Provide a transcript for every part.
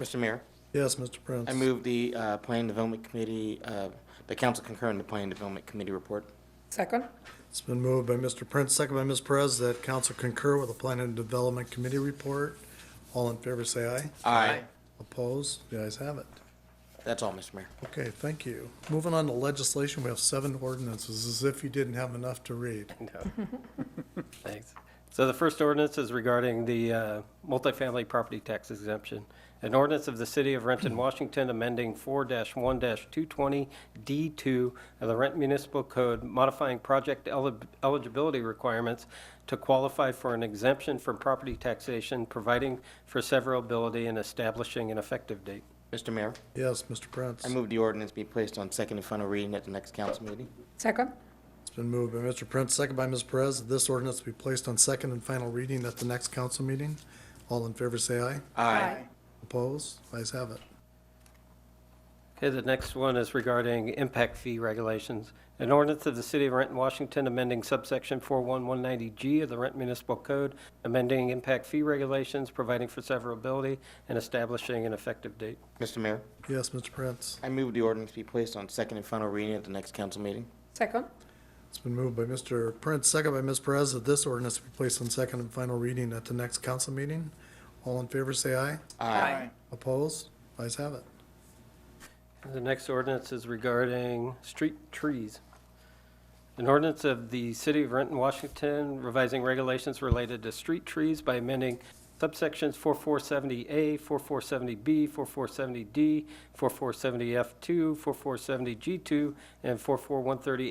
Mr. Mayor, Yes, Mr. Prince. I move the uh, Planning Development Committee, uh, the council concur in the Planning Development Committee report. Second? It's been moved by Mr. Prince, second by Ms. Perez, that council concur with the Planning and Development Committee report. All in favor, say aye. Aye. Opposed? The ayes have it. That's all, Mr. Mayor. Okay, thank you. Moving on to legislation, we have seven ordinances, as if you didn't have enough to read. No. Thanks. So the first ordinance is regarding the uh, multifamily property tax exemption. An ordinance of the City of Renton, Washington, amending 4-1-220D2 of the Renton Municipal Code, modifying project eli- eligibility requirements to qualify for an exemption from property taxation, providing for severability, and establishing an effective date. Mr. Mayor, Yes, Mr. Prince. I move the ordinance be placed on second and final reading at the next council meeting. Second? It's been moved by Mr. Prince, second by Ms. Perez, that this ordinance be placed on second and final reading at the next council meeting. All in favor, say aye. Opposed? Ayes have it. Okay, the next one is regarding impact fee regulations. An ordinance of the City of Renton, Washington, amending subsection 41190G of the Renton Municipal Code, amending impact fee regulations, providing for severability, and establishing an effective date. Mr. Mayor, Yes, Mr. Prince. I move the ordinance be placed on second and final reading at the next council meeting. Second? It's been moved by Mr. Prince, second by Ms. Perez, that this ordinance be placed on second and final reading at the next council meeting. All in favor, say aye. Opposed? Ayes have it. The next ordinance is regarding street trees. An ordinance of the City of Renton, Washington, revising regulations related to street trees by amending subsections 4470A, 4470B, 4470D, 4470F2, 4470G2, and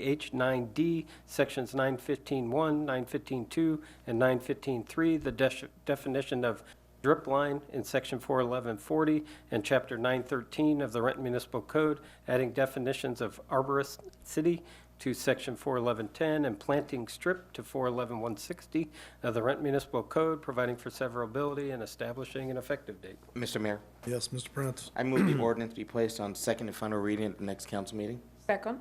44130H9D, sections 9151, 9152, and 9153, the def- definition of drip line in section 41140 and chapter 913 of the Renton Municipal Code, adding definitions of arborist city to section 41110 and planting strip to 411160 of the Renton Municipal Code, providing for severability and establishing an effective date. Mr. Mayor, Yes, Mr. Prince. I move the ordinance be placed on second and final reading at the next council meeting. Second?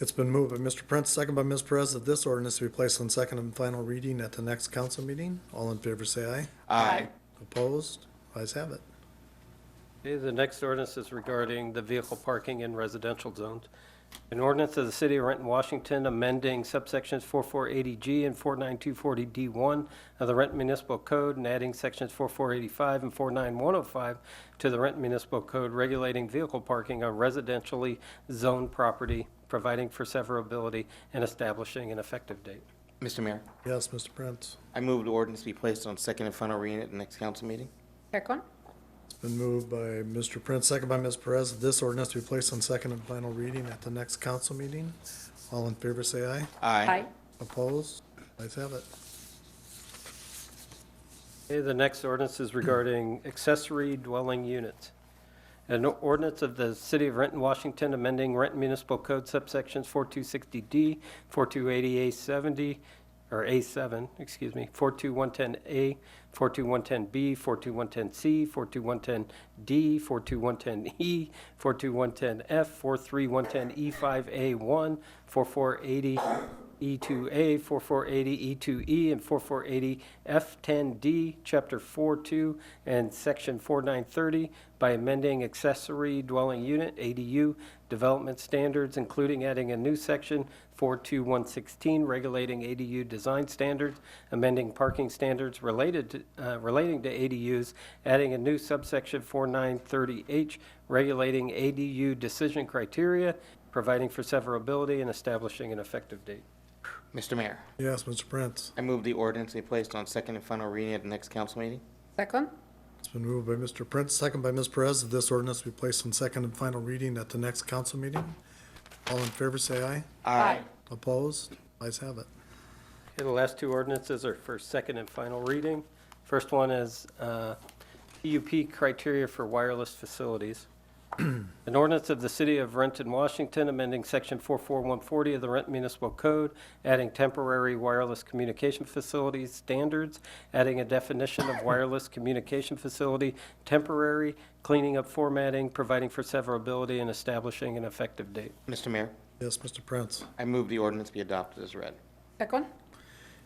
It's been moved by Mr. Prince, second by Ms. Perez, that this ordinance be placed on second and final reading at the next council meeting. All in favor, say aye. Aye. Opposed? Ayes have it. Okay, The next ordinance is regarding the vehicle parking in residential zones. An ordinance of the City of Renton, Washington, amending subsections 4480G and 49240D1 of the Renton Municipal Code and adding sections 4485 and 49105 to the Renton Municipal Code regulating vehicle parking on residentially zoned property, providing for severability, and establishing an effective date. Mr. Mayor, Yes, Mr. Prince. I move the ordinance be placed on second and final reading at the next council meeting. Second? It's been moved by Mr. Prince, second by Ms. Perez, that this ordinance be placed on second and final reading at the next council meeting. All in favor, say aye. Opposed? Ayes have it. Okay, the next ordinance is regarding accessory dwelling units. An ordinance of the City of Renton, Washington, amending Renton Municipal Code subsections 4260D, 4280A70, or A7, excuse me, 42110A, 42110B, 42110C, 42110D, 42110E, 42110F, E 43110E5A1, 4480 E2A, 4480 E2E, E and 4480 F10D, Chapter 42, and Section 4930 by amending accessory dwelling unit, ADU, development standards, including adding a new section, 42116, regulating ADU design standards, amending parking standards related, to- uh, relating to ADUs, adding a new subsection 4930H, regulating ADU decision criteria, providing for severability and establishing an effective date. Mr. Mayor, Yes, Mr. Prince. I move the ordinance be placed on second and final reading at the next council meeting. Second? It's been moved by Mr. Prince, second by Ms. Perez, that this ordinance be placed on second and final reading at the next council meeting. All in favor, say aye. Opposed? Ayes have it. Okay, the last two ordinances are for second and final reading. First one is uh, PUP criteria for wireless facilities. An ordinance of the City of Renton, Washington, amending Section 44140 of the Renton Municipal Code, adding temporary wireless communication facilities standards, adding a definition of wireless communication facility, temporary, cleaning up formatting, providing for severability, and establishing an effective date. Mr. Mayor, Yes, Mr. Prince. I move the ordinance be adopted as read. Second?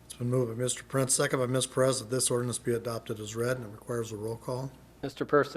It's been moved by Mr. Prince, second by Ms. Perez, that this ordinance be adopted as read, and it requires a roll call. Mr. Person?